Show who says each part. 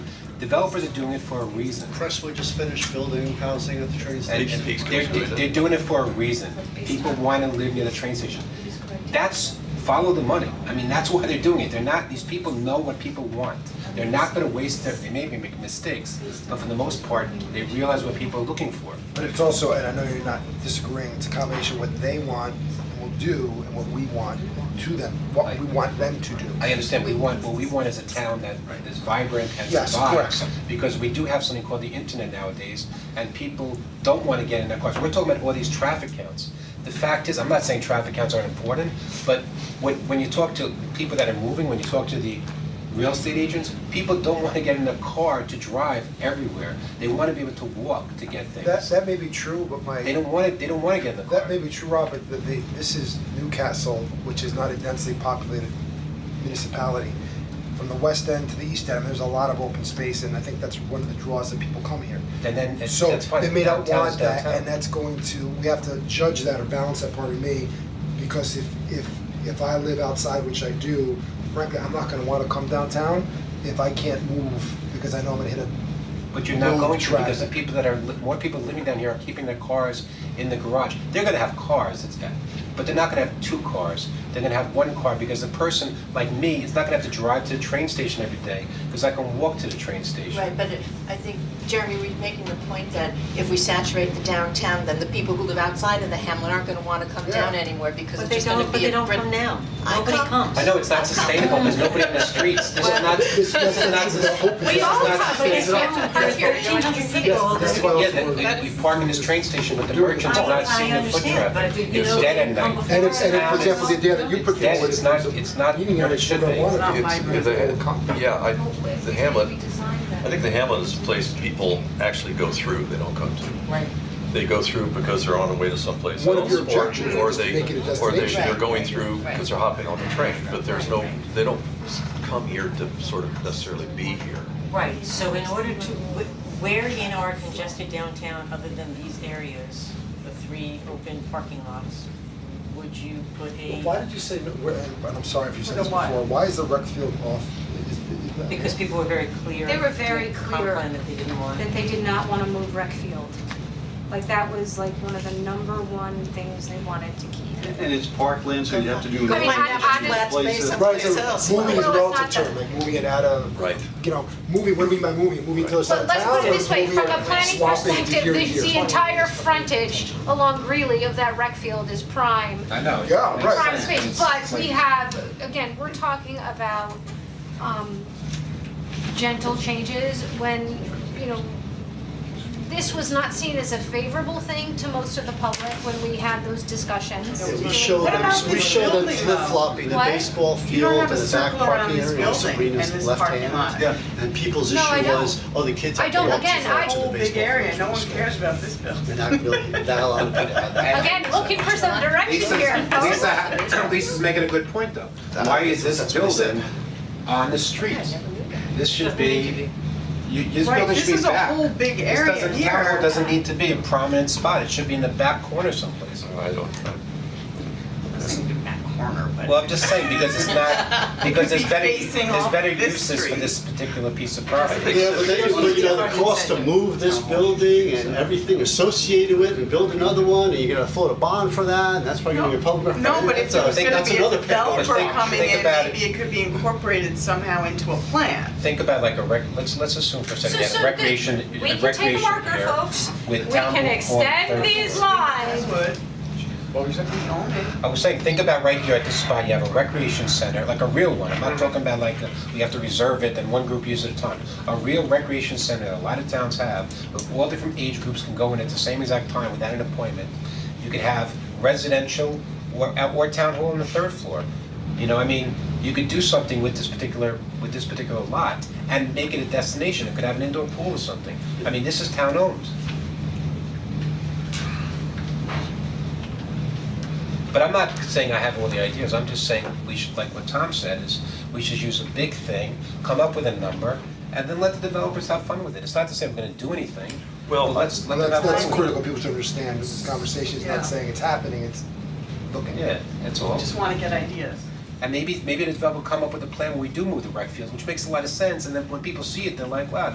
Speaker 1: developers are doing it for a reason.
Speaker 2: Crestwood just finished building housing at the train
Speaker 1: And
Speaker 2: station.
Speaker 3: Peaks
Speaker 1: they're,
Speaker 3: goes with it.
Speaker 1: they're doing it for a reason. People wanna live near the train station. That's, follow the money. I mean, that's why they're doing it. They're not, these people know what people want. They're not gonna waste their, they maybe make mistakes, but for the most part, they realize what people are looking for.
Speaker 4: But it's also, and I know you're not disagreeing, it's a combination of what they want and will do and what we want to them, what we want them to do.
Speaker 1: I understand, we want, what we want is a town that is vibrant and
Speaker 4: Yes,
Speaker 1: survives.
Speaker 4: correct.
Speaker 1: Because we do have something called the internet nowadays, and people don't wanna get in their cars. We're talking about all these traffic counts. The fact is, I'm not saying traffic counts aren't important, but when, when you talk to people that are moving, when you talk to the real estate agents, people don't wanna get in a car to drive everywhere. They wanna be able to walk to get
Speaker 4: That,
Speaker 1: things.
Speaker 4: that may be true, but my.
Speaker 1: They don't wanna, they don't wanna get in the car.
Speaker 4: That may be true, Rob, but the, the, this is Newcastle, which is not a densely populated municipality. From the west end to the east end, there's a lot of open space, and I think that's one of the draws that people come here.
Speaker 1: And then, it's-
Speaker 4: So
Speaker 1: that's fine.
Speaker 4: they may not
Speaker 1: Downtown is
Speaker 4: want that,
Speaker 1: downtown.
Speaker 4: and that's going to, we have to judge that or balance that, pardon me, because if, if, if I live outside, which I do, frankly, I'm not gonna wanna come downtown if I can't move, because I know I'm gonna hit a
Speaker 1: But you're not
Speaker 4: Road
Speaker 1: going to because the
Speaker 4: traffic.
Speaker 1: people that are, li- more people living down here are keeping their cars in the garage. They're gonna have cars, it's, but they're not gonna have two cars. They're gonna have one car because the person like me is not gonna have to drive to the train station every day because I can walk to the train station.
Speaker 5: Right, but it- I think Jeremy was making the point that if we saturate the downtown, then the people who live outside of the hamlet aren't gonna wanna come down
Speaker 4: Yeah.
Speaker 5: anymore because
Speaker 6: But
Speaker 5: it's
Speaker 6: they
Speaker 5: just gonna
Speaker 6: don't, but
Speaker 5: be
Speaker 6: they
Speaker 5: a.
Speaker 6: don't
Speaker 5: brick-
Speaker 6: come now.
Speaker 5: I
Speaker 6: Nobody
Speaker 5: come.
Speaker 6: comes.
Speaker 1: I know it's not sustainable, there's nobody in the streets, this is not, this is not, this is
Speaker 5: We all
Speaker 1: not
Speaker 5: come, but it's
Speaker 1: sustainable.
Speaker 5: not to park here, you don't have to sit.
Speaker 4: That's why I was
Speaker 1: Yeah,
Speaker 4: worried.
Speaker 1: that- we, we park in this train station, but the merchants are not
Speaker 6: I- I
Speaker 1: seeing the foot
Speaker 6: understand,
Speaker 1: traffic,
Speaker 6: but, you
Speaker 1: it's
Speaker 6: know,
Speaker 1: dead at
Speaker 6: come
Speaker 1: night.
Speaker 6: before
Speaker 4: And it's, and it- for
Speaker 1: Now
Speaker 4: example, the idea that you put
Speaker 1: Yes,
Speaker 4: forward
Speaker 1: it's
Speaker 4: is.
Speaker 1: not- it's not
Speaker 4: Eating
Speaker 1: what
Speaker 4: area,
Speaker 1: it should
Speaker 4: people
Speaker 1: be. uh,
Speaker 4: don't
Speaker 1: It's
Speaker 4: wanna be.
Speaker 3: It's, the, yeah, I, the Hamlet, I think the Hamlet is a place people actually go through, they don't come to.
Speaker 6: Right.
Speaker 3: They go through because they're on their way to someplace
Speaker 4: One of
Speaker 3: else,
Speaker 4: your
Speaker 3: or,
Speaker 4: objections
Speaker 3: or
Speaker 4: is to
Speaker 3: they,
Speaker 4: make it a
Speaker 3: or they,
Speaker 4: destination.
Speaker 3: they're going through because they're hopping on the train, but there's no, they don't come here to sort of necessarily be here.
Speaker 6: Right, so in order to, wh- where in our congested downtown, other than these areas, the three open parking lots, would you put
Speaker 4: Well,
Speaker 6: a?
Speaker 4: Why did you say, no- where- and I'm sorry if you said this
Speaker 6: Put a what?
Speaker 4: before, why is the rec field off? Is- is that-
Speaker 6: Because people were very clear.
Speaker 7: They were very
Speaker 6: in the
Speaker 7: clear.
Speaker 6: Comp plan that they didn't want.
Speaker 7: that they did not wanna move rec field. Like that was like one of the number one things they wanted to keep.
Speaker 8: And it's parkland, so you have to do.
Speaker 7: I mean, I- I just-
Speaker 8: Places.
Speaker 4: Right, so moving is a
Speaker 7: Well, it's
Speaker 4: relative
Speaker 7: not
Speaker 4: term,
Speaker 7: that-
Speaker 4: like moving it out of.
Speaker 3: Right.
Speaker 4: You know, moving, what do we mean by moving, moving to the side
Speaker 7: But
Speaker 4: of
Speaker 7: let's
Speaker 4: town
Speaker 7: put it
Speaker 4: or
Speaker 7: this way,
Speaker 4: moving
Speaker 7: from a
Speaker 4: it,
Speaker 7: planning
Speaker 4: swapping to
Speaker 7: perspective,
Speaker 4: here to
Speaker 7: the,
Speaker 4: here?
Speaker 7: the entire frontage along Greeley of that rec field is prime,
Speaker 1: I know.
Speaker 4: Yeah, right.
Speaker 7: prime space, but we have, again, we're talking about, um, gentle changes when, you know, this was not seen as a favorable thing to most of the public when we had those discussions.
Speaker 2: Yeah, we show
Speaker 9: What
Speaker 2: them,
Speaker 9: about
Speaker 2: we
Speaker 9: this
Speaker 2: show them
Speaker 9: building,
Speaker 2: flip flopping the
Speaker 7: What?
Speaker 2: baseball
Speaker 9: You don't
Speaker 2: field and
Speaker 9: have a
Speaker 2: the back
Speaker 9: circle around
Speaker 2: parking
Speaker 9: this
Speaker 2: area,
Speaker 9: building and
Speaker 2: Sabrina's
Speaker 9: this
Speaker 2: left
Speaker 9: parking lot.
Speaker 2: hand. Yeah, and people's
Speaker 7: No, I
Speaker 2: issue
Speaker 7: know.
Speaker 2: was, oh, the kids
Speaker 7: I
Speaker 2: have to
Speaker 7: don't-
Speaker 2: walk too
Speaker 7: again,
Speaker 2: far to
Speaker 7: I-
Speaker 2: the
Speaker 9: Whole
Speaker 2: baseball
Speaker 9: big area,
Speaker 2: field.
Speaker 9: no one cares about this building.
Speaker 2: They're not building, not allowing people to have that.
Speaker 7: Again, looking for some direction here,
Speaker 1: Lisa,
Speaker 7: folks.
Speaker 1: Lisa, ha- Lisa's making a good point though. Why is this
Speaker 2: That's what I said.
Speaker 1: building on the street? This should be, you, this
Speaker 9: Right,
Speaker 1: building
Speaker 9: this
Speaker 1: should be
Speaker 9: is a
Speaker 1: back.
Speaker 9: whole big
Speaker 1: This
Speaker 9: area
Speaker 1: doesn't-
Speaker 9: here.
Speaker 1: Carroll doesn't need to be a prominent spot, it should be in the back corner someplace.
Speaker 3: I don't,
Speaker 9: That corner, but.
Speaker 1: Well, I'm just saying, because it's not, because there's
Speaker 9: Be
Speaker 1: better,
Speaker 9: facing
Speaker 1: there's
Speaker 9: off
Speaker 1: better
Speaker 9: this
Speaker 1: uses for
Speaker 9: street.
Speaker 1: this particular piece of property.
Speaker 2: Yeah, but then you're looking at the cost to move this building and everything associated with it and build another one, and you're gonna float a bond for that, and that's why you're gonna get public.
Speaker 9: No, but if
Speaker 2: That's
Speaker 9: there
Speaker 2: a-
Speaker 9: was gonna
Speaker 1: that's
Speaker 9: be a
Speaker 1: another
Speaker 9: developer
Speaker 1: problem. Think-
Speaker 9: coming
Speaker 1: think
Speaker 9: in,
Speaker 1: about it.
Speaker 9: maybe it could be incorporated somehow into a plan.
Speaker 1: Think about like a rec, let's, let's assume for a second,
Speaker 7: So-
Speaker 1: you have
Speaker 7: so
Speaker 1: a recreation,
Speaker 7: the-
Speaker 1: a
Speaker 7: We can take a
Speaker 1: recreation
Speaker 7: marker,
Speaker 1: area
Speaker 7: folks.
Speaker 1: with
Speaker 7: We
Speaker 1: town
Speaker 7: can
Speaker 1: hall
Speaker 7: extend
Speaker 1: third
Speaker 7: these
Speaker 1: floor.
Speaker 7: lines.
Speaker 9: Would,
Speaker 4: What were you saying?
Speaker 9: we own it.
Speaker 1: I was saying, think about right here at this spot, you have a recreation center, like a real one, I'm not talking about like, uh, we have to reserve it and one group uses it a ton. A real recreation center that a lot of towns have, but all different age groups can go in at the same exact time without an appointment. You could have residential or, or town hall on the third floor. You know, I mean, you could do something with this particular, with this particular lot and make it a destination, it could have an indoor pool or something. I mean, this is town owned. But I'm not saying I have all the ideas, I'm just saying we should, like what Tom said, is we should use a big thing, come up with a number, and then let the developers have fun with it. It's not to say we're gonna do anything,
Speaker 3: Well,
Speaker 1: but let's, let
Speaker 4: Well,
Speaker 1: them have fun
Speaker 4: that's, that's
Speaker 1: with it.
Speaker 4: critical, people to understand, this conversation is
Speaker 9: Yeah.
Speaker 4: not saying it's happening, it's looking.
Speaker 1: Yeah, that's all.
Speaker 9: just wanna get ideas.
Speaker 1: And maybe, maybe the developer will come up with a plan where we do move the rec field, which makes a lot of sense, and then when people see it, they're like, wow,